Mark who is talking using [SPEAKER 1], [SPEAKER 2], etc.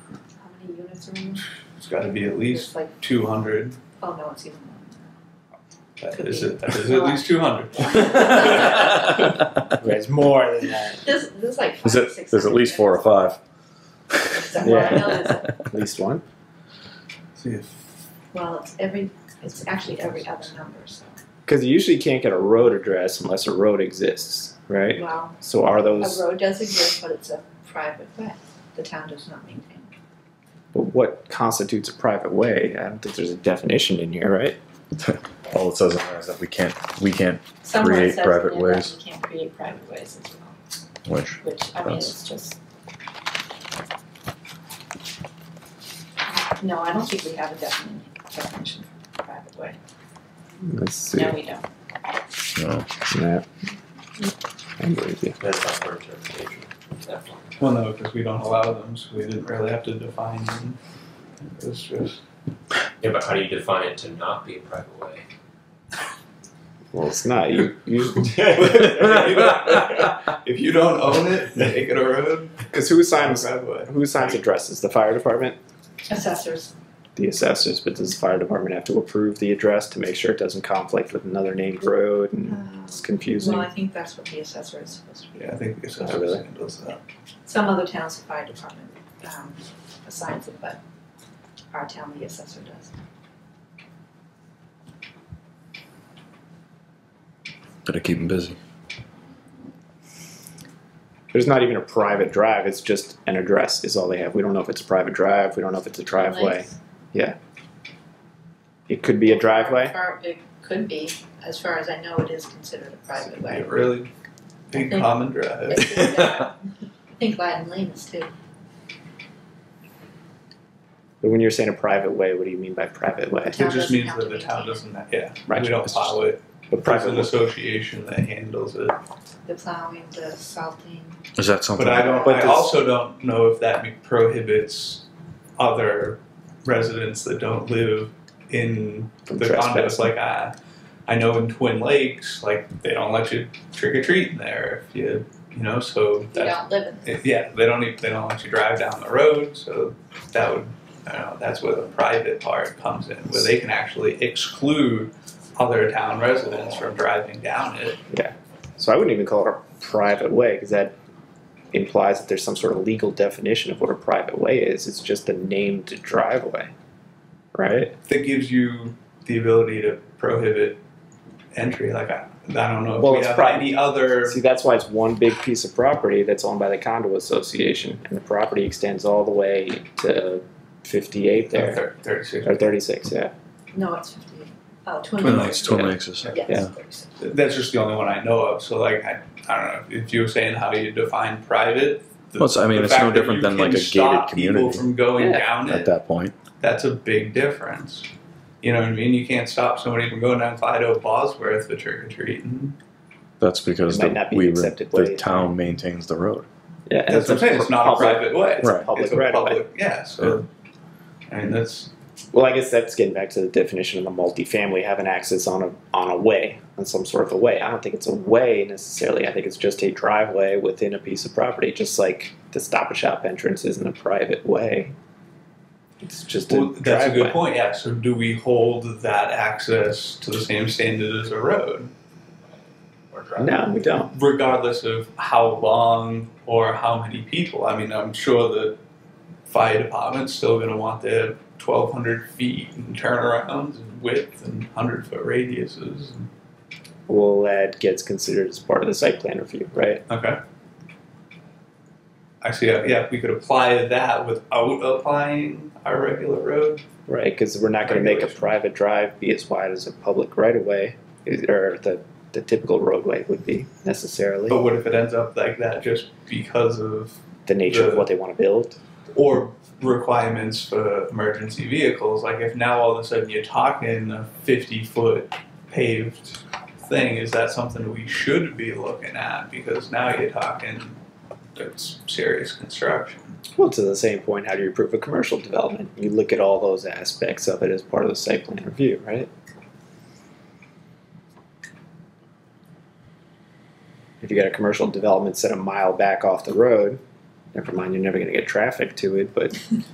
[SPEAKER 1] many units are in there?
[SPEAKER 2] It's gotta be at
[SPEAKER 1] It's
[SPEAKER 2] least
[SPEAKER 1] like,
[SPEAKER 2] two hundred,
[SPEAKER 1] oh no, it's even more.
[SPEAKER 2] that
[SPEAKER 1] Could
[SPEAKER 2] is
[SPEAKER 1] be.
[SPEAKER 2] it, that is at least two hundred.
[SPEAKER 3] There's more than that.
[SPEAKER 1] There's, there's like five,
[SPEAKER 4] There's,
[SPEAKER 1] or
[SPEAKER 4] at-
[SPEAKER 1] six.
[SPEAKER 4] there's at
[SPEAKER 1] hundred
[SPEAKER 4] least four or
[SPEAKER 1] units.
[SPEAKER 4] five.
[SPEAKER 1] So, well, I know there's a-
[SPEAKER 3] At least one.
[SPEAKER 2] See if,
[SPEAKER 1] Well, it's every, it's actually every other number, so,
[SPEAKER 3] Because you usually can't get a road address unless a road exists, right?
[SPEAKER 1] well,
[SPEAKER 3] So are
[SPEAKER 1] a
[SPEAKER 3] those?
[SPEAKER 1] road does exist, but it's a private way. The town does not maintain.
[SPEAKER 3] But what constitutes a private way? I don't think there's a definition in here, right?
[SPEAKER 4] All it says in there is that we can't we can't
[SPEAKER 5] Someone
[SPEAKER 4] Create
[SPEAKER 5] says in
[SPEAKER 4] private
[SPEAKER 5] there that
[SPEAKER 4] ways.
[SPEAKER 5] You can't create private ways as well,
[SPEAKER 4] which
[SPEAKER 5] which, I mean,
[SPEAKER 4] That's-
[SPEAKER 5] it's just,
[SPEAKER 1] No, I don't think we have a defini- definition for private way.
[SPEAKER 3] Let's see.
[SPEAKER 5] no, we don't.
[SPEAKER 4] no.
[SPEAKER 3] Yeah. I'm with you.
[SPEAKER 6] That's not our interpretation. Definitely.
[SPEAKER 2] well, no, because we don't allow them, so we didn't really have to define them. It was just.
[SPEAKER 6] Yeah, but how do you define it to not be a private way?
[SPEAKER 3] Well, it's not. You, you,
[SPEAKER 2] If you don't own it, make it a road.
[SPEAKER 3] because who signs
[SPEAKER 2] driveway.
[SPEAKER 3] who signs addresses? The fire department,
[SPEAKER 1] Assessors,
[SPEAKER 3] the assessors. But does the fire department have to approve the address to make sure it doesn't conflict with another named road?
[SPEAKER 1] uh,
[SPEAKER 3] And it's confusing.
[SPEAKER 1] well, I think that's what the assessor is supposed to be.
[SPEAKER 2] Yeah, I think the
[SPEAKER 3] Oh,
[SPEAKER 2] assessor
[SPEAKER 3] really?
[SPEAKER 2] handles that.
[SPEAKER 1] Some other towns, the fire department, um, assigns it, but our town, the assessor does.
[SPEAKER 4] Better keep them busy.
[SPEAKER 3] There's not even a private drive. It's just an address is all they have. We don't know if it's a private drive. We don't know if it's a driveway.
[SPEAKER 1] Nice.
[SPEAKER 3] It could be a driveway.
[SPEAKER 1] Far- It could be, as far as I know, it is considered a private
[SPEAKER 2] Be
[SPEAKER 1] way.
[SPEAKER 2] a really big
[SPEAKER 1] think-
[SPEAKER 2] common drive.
[SPEAKER 1] It's- I think Latin Lane is too.
[SPEAKER 3] But when you're saying a private way, what do you mean by private way?
[SPEAKER 1] town
[SPEAKER 2] It just
[SPEAKER 1] doesn't
[SPEAKER 2] means
[SPEAKER 1] have to
[SPEAKER 2] that the
[SPEAKER 1] maintain
[SPEAKER 2] town
[SPEAKER 1] it.
[SPEAKER 2] doesn't, yeah,
[SPEAKER 3] Right,
[SPEAKER 2] we don't
[SPEAKER 3] it's just-
[SPEAKER 2] plow it, there's
[SPEAKER 3] But private
[SPEAKER 2] an association that handles it.
[SPEAKER 1] The plowing, the salting,
[SPEAKER 4] Is that something?
[SPEAKER 2] But I don't,
[SPEAKER 3] But
[SPEAKER 2] I
[SPEAKER 3] this-
[SPEAKER 2] also don't know if that prohibits other residents that don't live in
[SPEAKER 3] from
[SPEAKER 2] the
[SPEAKER 3] trespass.
[SPEAKER 2] condos, like I, I know in Twin Lakes, like they don't let you trick or treat in there if you, you know, so
[SPEAKER 1] you don't
[SPEAKER 2] that,
[SPEAKER 1] live in.
[SPEAKER 2] it- yeah, they don't even, they don't let you drive down the road, so that would, I don't know, that's where the private part comes in, where they can actually exclude other town residents from driving down it.
[SPEAKER 3] So I wouldn't even call it a private way because that implies that there's some sort of legal definition of what a private way is. It's just a named driveway, right?
[SPEAKER 2] That gives you the ability to prohibit entry, like I, I don't know if
[SPEAKER 3] Well,
[SPEAKER 2] we
[SPEAKER 3] it's
[SPEAKER 2] have
[SPEAKER 3] private.
[SPEAKER 2] any other,
[SPEAKER 3] See, that's why it's one big piece of property that's owned by the condo association, and the property extends all the way to 58 there.
[SPEAKER 2] thir- thirty-six
[SPEAKER 3] Or 36, yeah.
[SPEAKER 1] No, it's fifty-eight. Oh, Twin
[SPEAKER 2] Twin
[SPEAKER 1] Lakes.
[SPEAKER 4] It's Twin Lakes is.
[SPEAKER 1] Yes,
[SPEAKER 3] Yeah.
[SPEAKER 1] thirty-six.
[SPEAKER 2] That's just the only one I know of. So like I, I don't know if you were saying how you define private. The,
[SPEAKER 4] Well, it's- I mean,
[SPEAKER 2] the
[SPEAKER 4] it's
[SPEAKER 2] fact
[SPEAKER 4] no
[SPEAKER 2] that
[SPEAKER 4] different
[SPEAKER 2] you
[SPEAKER 4] than,
[SPEAKER 2] can
[SPEAKER 4] like, a gated
[SPEAKER 2] stop People
[SPEAKER 4] community.
[SPEAKER 2] from going
[SPEAKER 3] Yeah.
[SPEAKER 2] down
[SPEAKER 4] At
[SPEAKER 2] it.
[SPEAKER 4] that point,
[SPEAKER 2] That's a big difference. You know what I mean? You can't stop somebody from going down Clyde O. Bosworth for trick or treating.
[SPEAKER 4] that's because
[SPEAKER 3] It might
[SPEAKER 4] the,
[SPEAKER 3] not be
[SPEAKER 4] we
[SPEAKER 3] accepted
[SPEAKER 4] the
[SPEAKER 3] way.
[SPEAKER 4] town maintains the road.
[SPEAKER 3] Yeah, and
[SPEAKER 2] That's what I'm saying. It's not a
[SPEAKER 3] public-
[SPEAKER 2] private way.
[SPEAKER 3] It's
[SPEAKER 2] It's,
[SPEAKER 3] a public
[SPEAKER 2] it's a
[SPEAKER 3] right of way.
[SPEAKER 2] public. Yeah. So I mean, that's
[SPEAKER 3] Well, I guess that's getting back to the definition of a multifamily having access on a on a way, on some sort of a way. I don't think it's a way necessarily. I think it's just a driveway within a piece of property, just like the Stop and Shop entrance isn't a private way. It's just a
[SPEAKER 2] well, that's a
[SPEAKER 3] driveway.
[SPEAKER 2] good point. Yeah. So do we hold that access to the same standard as a road?
[SPEAKER 6] Or drive.
[SPEAKER 3] No, we don't.
[SPEAKER 2] regardless of how long or how many people. I mean, I'm sure the fire department's still going to want their 1,200 feet and turnarounds and width and 100 foot radiuses.
[SPEAKER 3] Well, that gets considered as part of the site plan review, right?
[SPEAKER 2] Okay. Actually, yeah, yeah, we could apply that without applying our regular road.
[SPEAKER 3] Right, because we're not going to make a
[SPEAKER 2] Regulation.
[SPEAKER 3] private drive be as wide as a public right of way, or the the typical roadway would be necessarily
[SPEAKER 2] But what if it ends up like that just because of
[SPEAKER 3] the nature of
[SPEAKER 2] the-
[SPEAKER 3] what they want to build.
[SPEAKER 2] or requirements for emergency vehicles. Like if now all of a sudden you're talking a 50 foot paved thing, is that something we should be looking at? Because now you're talking that's serious construction.
[SPEAKER 3] Well, to the same point, how do you approve a commercial development? You look at all those aspects of it as part of the site plan review, right? If you got a commercial development set a mile back off the road, never mind, you're never going to get traffic to it, but